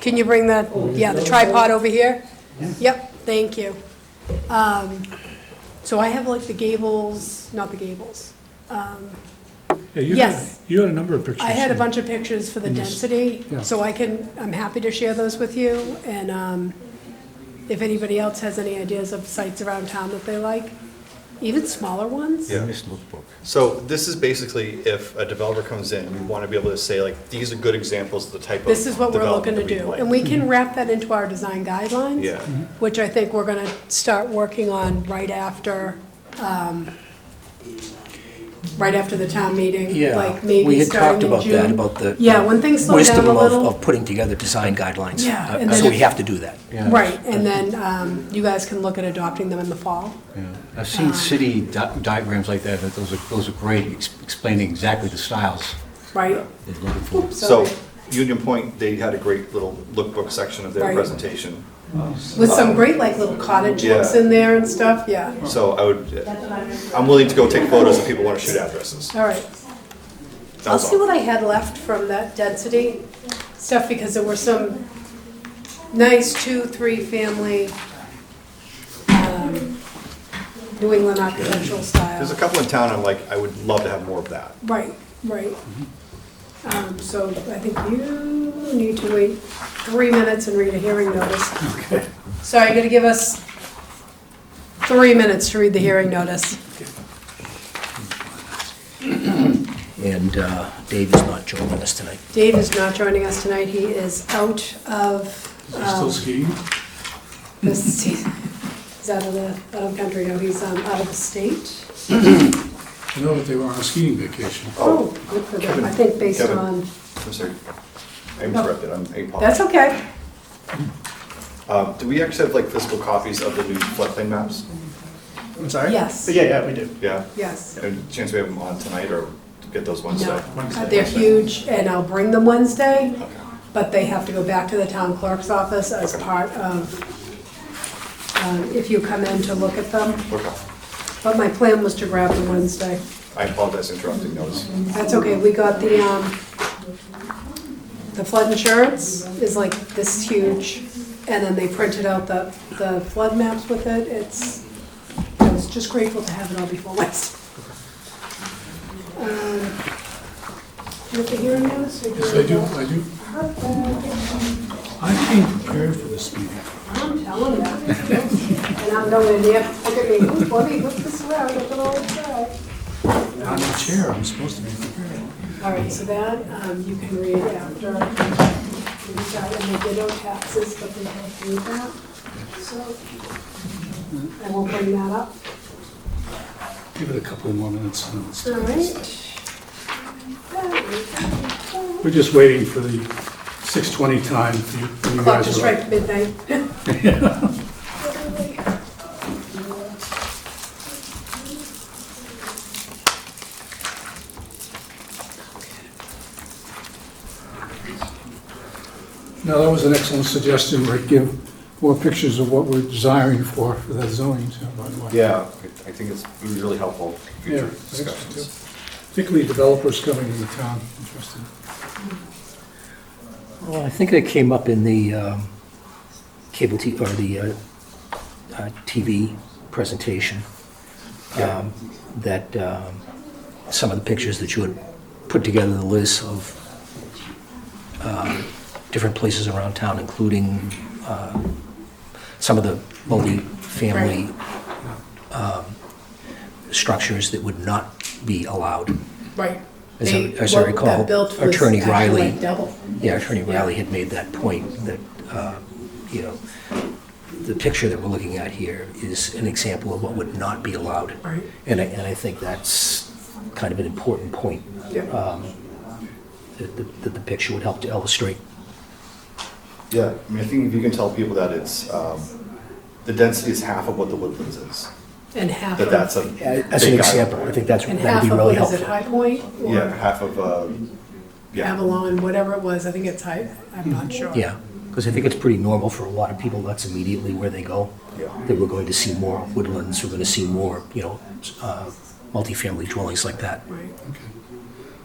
Can you bring the, yeah, the tripod over here? Yep, thank you. Um, So I have like the gables, not the gables. Um, Yeah, you Yes. had, you had a number of pictures. I had a bunch of pictures for the density, yeah. so I can, I'm happy to share those with you. And um, if anybody else has any ideas of sites around town that they like, even smaller ones. Yeah. So this is basically if a developer comes in, we want to be able to say like, these are good examples of the type of. This is what we're looking development to that we'd do. like. And we can wrap that into our design guidelines. Yeah. Mm-hmm. Which I think we're gonna start working on right after, um, right after the town meeting. Yeah, Like we maybe had talked starting in about that, June. about the. Yeah, when things slow down wisdom a of- little. Of putting together design guidelines. Yeah, Uh, and then So if- we have to do that. Yeah. Right, and then um, you guys can look at adopting them in the fall. Yeah. I've seen city di- diagrams like that, but those are, those are great, ex- explaining exactly the styles Right. they're looking for. So Sorry. Union Point, they had a great little lookbook section of Right. their presentation. With some great like little cottage um, Yeah. looks in there and stuff, yeah. So I would, I'm willing to go take photos if people want to shoot addresses. All right. That I'll was see all. what I had left from that density stuff because there were some nice two, three family, um, New England architectural There's a style. couple in town, I'm like, I would love to have more of that. Right, right. Um, so I think you need to wait three minutes and read a hearing notice. Okay. So you're gonna give us three minutes to read the hearing notice. And uh, Dave is not joining us tonight. Dave is not joining us tonight. He is out of, um, Still skiing? this, he's out of the, out of country, no, he's, um, out of the state. I know that they were on a skiing vacation. Oh, good for them. I think based Kevin. on, I'm sorry. I interrupted, I'm, I that's apologize. okay. Uh, do we actually have like physical copies of the new floodplain maps? I'm sorry? Yes. Yeah, yeah, we do. Yeah? Yes. And chance we have them on tonight or get those Wednesday? No, uh, they're huge, and I'll bring them Wednesday, Okay. but they have to go back to the town clerk's office as Okay. part of, um, if you come in to look at them. Okay. But my plan was to grab them Wednesday. I apologize for interrupting, that was, That's okay, we got the, um, the flood insurance is like this huge, and then they printed out the, the flood maps with it, it's, I was just grateful to have it all before Wednesday. Um, With the hearing notice? or Yes, I do, I do. I came prepared for this meeting. I'm telling you. And I'm going in there, look at me, who's Bobby, who's this around, look at all this On the chair, I'm supposed to be prepared. All right, so that, um, you can read after. We've got, and they did owe taxes, but they don't do that, so I will bring that up. Give it a couple more minutes. and it's- All right. We're just waiting for the 6:20 time. for you- for you Clock guys to to- strike midnight. No, that was an excellent suggestion, Rick. Give more pictures of what we're desiring for, for that zoning, too, by the way. yeah, I think it's it was really helpful for Yeah, I future think so, too. discussions. Particularly developers coming into town, interesting. Well, I think that came up in the um, cable T, or the uh, uh, TV presentation. um, That um, some of the pictures that you had put together, the list of um, different places around town, including uh, some of the multi-family um, structures that would not be allowed. Right. As I- They- as I what recall, that built was Attorney actually Riley- like Double. Yeah, Attorney Riley had made that point, that, uh, you know, the picture that we're looking at here is an example of what would not be allowed. Right. And I, and I think that's kind of an important point, uh, Yeah. that the, that the picture would help to illustrate. Yeah, I mean, I think if you can tell people that it's, um, the density is half of what the Woodlands is, And half that of, that's a. As an big example, island. I think that's, and that'd half be of, really what is it, helpful. High Point? or- Yeah, half of, uh, yeah, Avalon, whatever it was, I think it's high, I'm not sure. Mm-hmm. Yeah, because I think it's pretty normal for a lot of people, that's immediately where they go. Yeah. That we're going to see more woodlands, we're gonna see more, you know, uh, multifamily dwellings like that. Right, Okay.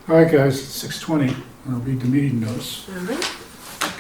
All right, guys, it's 6:20. I'll read the meeting notice. all right.